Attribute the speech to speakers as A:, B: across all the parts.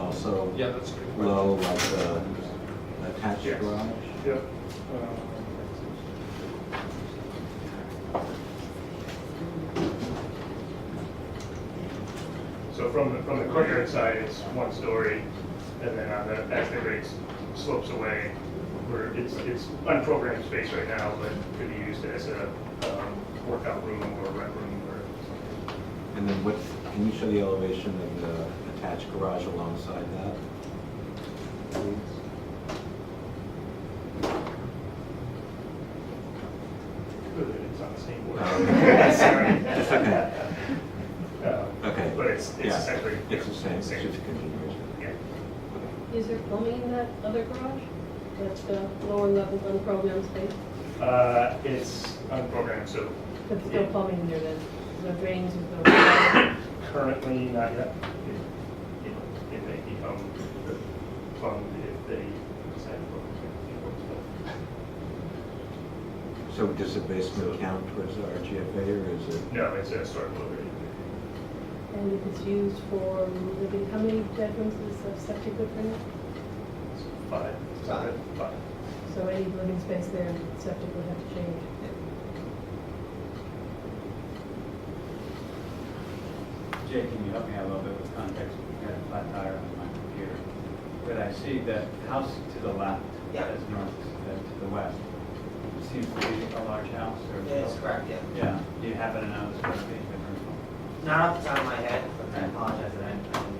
A: also
B: Yeah, that's a good question.
A: low, like the attached
B: Yes.
A: garage?
B: Yeah. uh,
C: So from the, from the courtyard side, it's one story, and then on the, as the grade slopes away, where it's, it's unprogrammed space right now, but could be used as a um, workout room or rec room or
A: And then what's, can you show the elevation of the attached garage alongside that? please?
C: it's on the same board.
A: Um,
C: Sorry.
A: It's okay.
C: Um,
A: Okay.
C: But it's, it's
A: Yeah,
C: essentially.
A: It's the same, it's just
C: Same,
A: a continuation.
C: yeah.
D: Is there plumbing in that other garage? That's the lower level unprogrammed space?
C: Uh, it's unprogrammed, so
D: But still plumbing in there then? The drains with the...
C: currently not yet. It- It, it may become fun if they decide to work with
A: So does the basement count towards the RGFA or is it?
C: it. No, it's a sort of delivery.
D: And if it's used for living, how many bedrooms is the septic good for now?
C: It's Five.
E: Five.
C: Five.
D: So any living space there, septic would have to change.
F: Jay, can you help me out a little bit with context? We got a flat tire on my computer. But I see that house to the left,
E: Yeah.
F: that is north, that to the west, seems to be a large house or?
E: That's correct, yeah.
F: Yeah, do you happen to know the square footage difference?
E: Not off the top of my head, but I
F: Okay.
E: apologize that I didn't.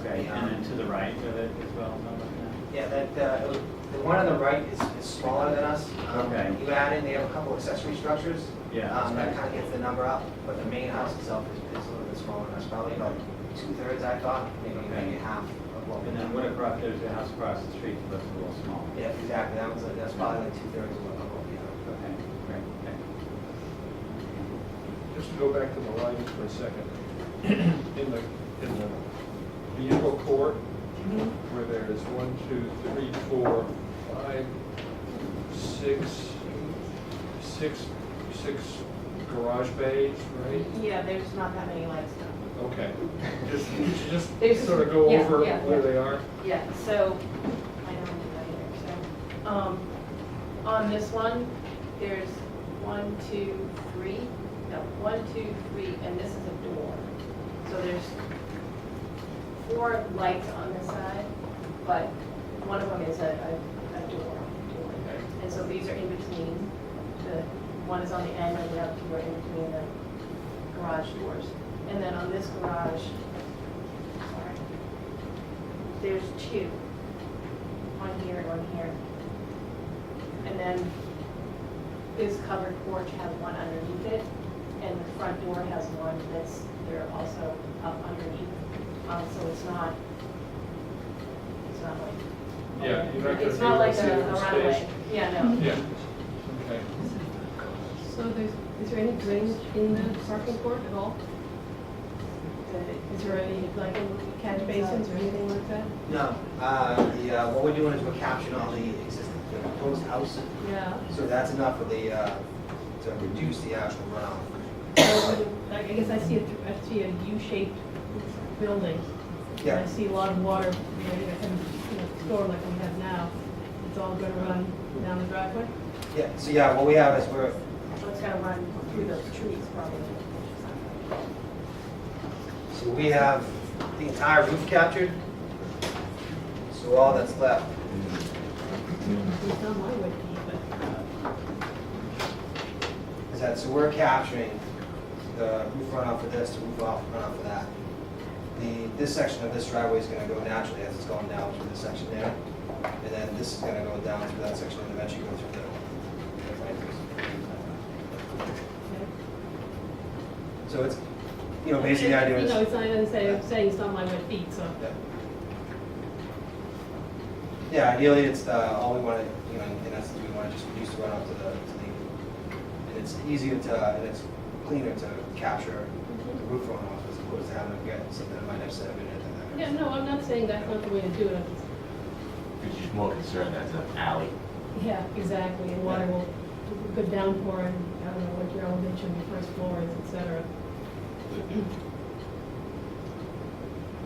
F: Okay,
E: Yeah.
F: and then to the right of it as well, is that what
E: Yeah, that, uh, it was- the one on the right is is smaller than us. Um,
F: Okay.
E: You add in, they have a couple accessory structures.
F: Yeah, that's
E: Um, That
F: right.
E: kind of gets the number up, but the main house itself is is a little bit smaller than us, probably about two-thirds, I thought, maybe
F: Okay.
E: maybe half of
F: it
E: what we
F: is? And then
E: know.
F: what across, there's a house across the street that looks a little small.
E: Yeah, exactly, that was, that's probably like two-thirds of what we know.
F: Okay, great, thank
B: Just to go back to the lighting for a second. In the, in the vehicle court, where there's one, two, three, four, five, six, six, six garage bays, right?
G: Yeah, there's not that many lights now.
B: Okay. Just,
G: There's
B: just
G: just-
B: sort of go
G: yeah,
B: over
G: yeah,
B: where
G: yeah.
B: they are.
G: Yeah, so, I don't do that either, so, um, on this one, there's one, two, three, no, one, two, three, and this is a door. So there's four lights on this side, but one of them is a, a, a door. And so these are in between, the, one is on the end and the other two are in between the garage doors. And then on this garage, sorry, there's two, one here and one here. And then this covered porch has one underneath it, and the front door has one that's, they're also up underneath. Um, so it's not, it's not like.
B: Yeah, you're not gonna
G: It's
B: be
G: not
B: able to
G: like
B: see
G: a
B: it from
G: a
B: space.
G: runway, yeah, no.
B: Yeah, okay.
D: So there's, is there any drainage in the parking court at all? Uh,
G: The-
D: Is there any, like, catch basins or anything like that?
E: No, uh, the, uh, what we're doing is we're capturing all the existing, the proposed house,
D: Yeah.
E: so that's enough for the, uh, to reduce the actual runoff.
D: So, I guess I see a, th- I see a U-shaped building. And
E: Yeah.
D: I see a lot of water, you know, and, you know, store like we have now. It's all gonna run down the driveway.
E: Yeah, so yeah, what we have is we're,
G: So it's gonna run through those trees probably.
E: so we have the entire roof captured, so all that's left.
D: It's not my way to eat, but uh,
E: is that, so we're capturing the roof runoff of this, the roof off runoff of that. The, this section of this driveway is gonna go naturally as it's going down through this section there. And then this is gonna go down through that section and eventually go through the. So it's, you know, basically the idea
D: You
E: is.
D: know, it's not, I'm saying, I'm saying it's not my way to eat, so.
E: Yeah. Yeah, ideally, it's, uh, all we want to, you know, and that's, we want to just reduce the runoff to the, to the, and it's easier to, and it's cleaner to capture the roof runoff as opposed to having to get something that might have set up in it. and
D: Yeah,
E: then-
D: no, I'm not saying that's not the way to do it. I'm just-
H: Because you're more concerned as an alley.
D: Yeah, exactly, and water will, good downpour, and I don't know what your elevation, your first floor is, et cetera.